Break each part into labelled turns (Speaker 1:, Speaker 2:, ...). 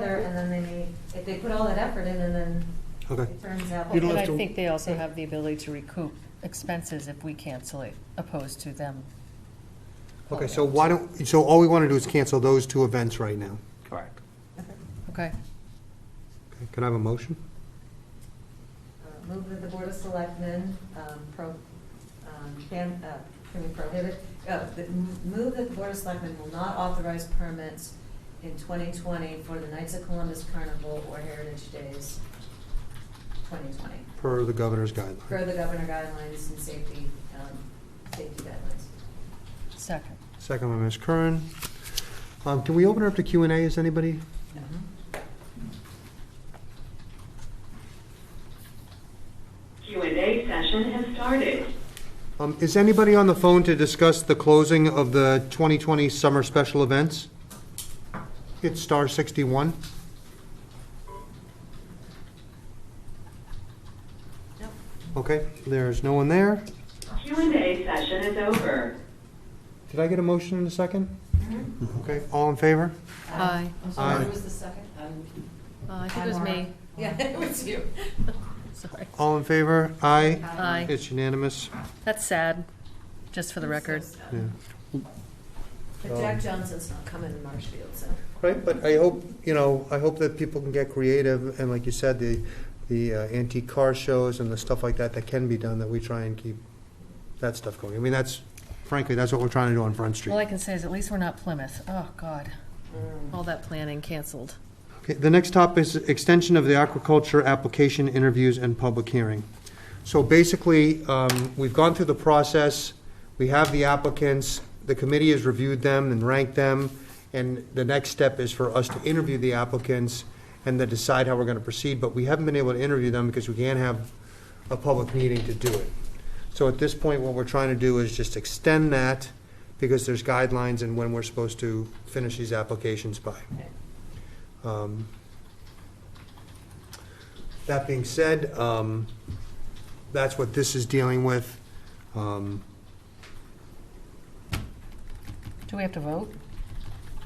Speaker 1: together, and then they, if they put all that effort in, and then
Speaker 2: Okay.
Speaker 1: it turns out.
Speaker 2: You don't
Speaker 3: And
Speaker 2: have
Speaker 3: I
Speaker 2: to-
Speaker 3: think they also have the ability to recoup expenses if we cancel it, opposed to them.
Speaker 2: Okay, so why don't, so all we want to do is cancel those two events right now.
Speaker 4: Correct.
Speaker 3: Okay,
Speaker 2: Okay, Can I have a motion?
Speaker 1: Uh, Move that the Board of Selectmen um, pro, um, can, uh, can we prohibit, uh, the- m- move that the Board of Selectmen will not authorize permits in 2020 for the Knights of Columbus Carnival or Heritage Days 2020,
Speaker 2: Per the governor's
Speaker 1: per
Speaker 2: guideline.
Speaker 1: the governor guidelines and safety, um, safety guidelines.
Speaker 3: second.
Speaker 2: Second by Ms. Curran. Um, Can we open it up to Q and A? Is anybody?
Speaker 5: Q&A session has started.
Speaker 2: um, Is anybody on the phone to discuss the closing of the 2020 summer special events? It's star 61.
Speaker 1: Yep.
Speaker 2: Okay, there's no one there.
Speaker 5: Q&A session is over.
Speaker 2: Did I get a motion in a second? Okay, all in favor?
Speaker 3: Aye.
Speaker 1: I'm sorry,
Speaker 2: Aye.
Speaker 1: who was the second?
Speaker 3: I
Speaker 1: think it was me. Yeah, it was you.
Speaker 3: Sorry.
Speaker 2: All in favor? Aye.
Speaker 3: Aye.
Speaker 2: It's unanimous.
Speaker 3: That's sad, just for the record.
Speaker 2: Yeah.
Speaker 1: But Jack Johnson's not coming to Marshfield, so.
Speaker 2: Right, but I hope, you know, I hope that people can get creative, and like you said, the, the uh, antique car shows and the stuff like that that can be done, that we try and keep that stuff going. I mean, that's, frankly, that's what we're trying to do on Front
Speaker 3: All I
Speaker 2: Street.
Speaker 3: can say is at least we're not Plymouth. Oh, God. Mm. All that planning canceled.
Speaker 2: Okay, the next topic is extension of the aquaculture application interviews and public hearing. So basically, um, we've gone through the process, we have the applicants, the committee has reviewed them and ranked them, and the next step is for us to interview the applicants and then decide how we're gonna proceed, but we haven't been able to interview them because we can't have a public meeting to do it. So at this point, what we're trying to do is just extend that, because there's guidelines and when we're supposed to finish these applications by. Um, That being said, um, that's what this is dealing with. Um,
Speaker 3: Do we have to vote?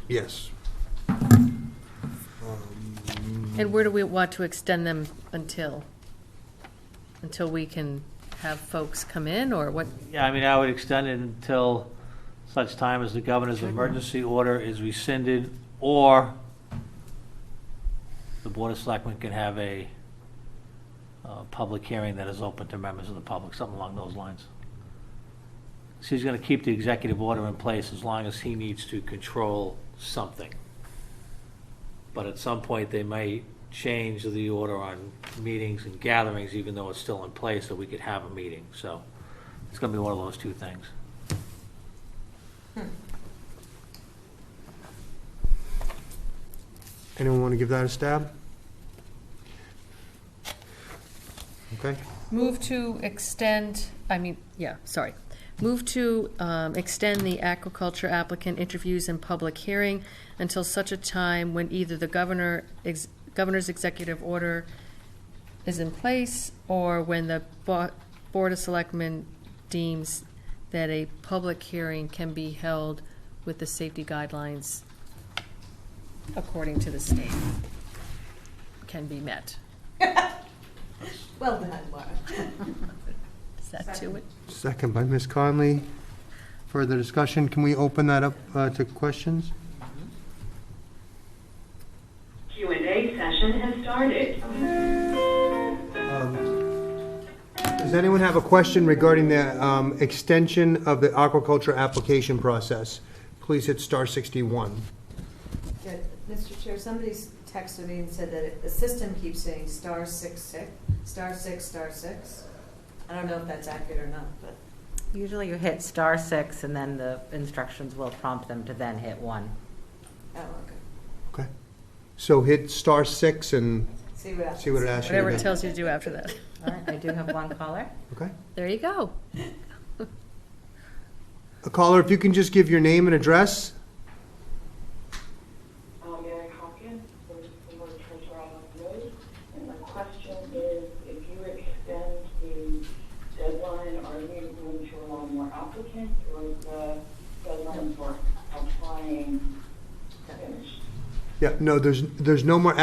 Speaker 2: Yes. Um,
Speaker 3: And where do we want to extend them until? Until we can have folks come in, or what?
Speaker 4: Yeah, I mean, I would extend it until such time as the governor's emergency order is rescinded, or the Board of Selectmen can have a uh, public hearing that is open to members of the public, something along those lines. She's going to keep the executive order in place as long as he needs to control something. But at some point, they may change the order on meetings and gatherings, even though it's still in place, that we could have a meeting, so. It's gonna be one of those two things.
Speaker 2: Anyone want to give that a stab? Okay,
Speaker 3: Move to extend, I mean, yeah, sorry. Move to um, extend the aquaculture applicant interviews and public hearing until such a time when either the governor, ex- governor's executive order is in place, or when the Bo- Board of Selectmen deems that a public hearing can be held with the safety guidelines according to the state can be met.
Speaker 1: Well done, Laura.
Speaker 3: Is that to it?
Speaker 2: second by Ms. Conley. Further discussion, can we open that up uh, to questions?
Speaker 5: Q&A session has started.
Speaker 2: Does anyone have a question regarding the um, extension of the aquaculture application process? Please hit star 61.
Speaker 1: Yeah, Mr. Chair, somebody's texted me and said that it- the system keeps saying star six six, star six, star six. I don't know if that's accurate or not, but
Speaker 6: Usually you hit star six and then the instructions will prompt them to then hit one.
Speaker 1: oh, okay.
Speaker 2: Okay. So hit star six and
Speaker 1: See what happens.
Speaker 2: see what it asks you
Speaker 3: Whatever
Speaker 2: to
Speaker 3: it
Speaker 2: do.
Speaker 3: tells you to do after that.
Speaker 6: All right, I do have one caller.
Speaker 2: Okay.
Speaker 3: There you go.
Speaker 2: A caller, if you can just give your name and address?
Speaker 7: Um, Mary Hawkins, from Fort Treasure Island Road. And my question is, if you extend the deadline, are you going to allow more applicants, or is the deadline for applying finished?
Speaker 2: Yeah, no, there's, there's no more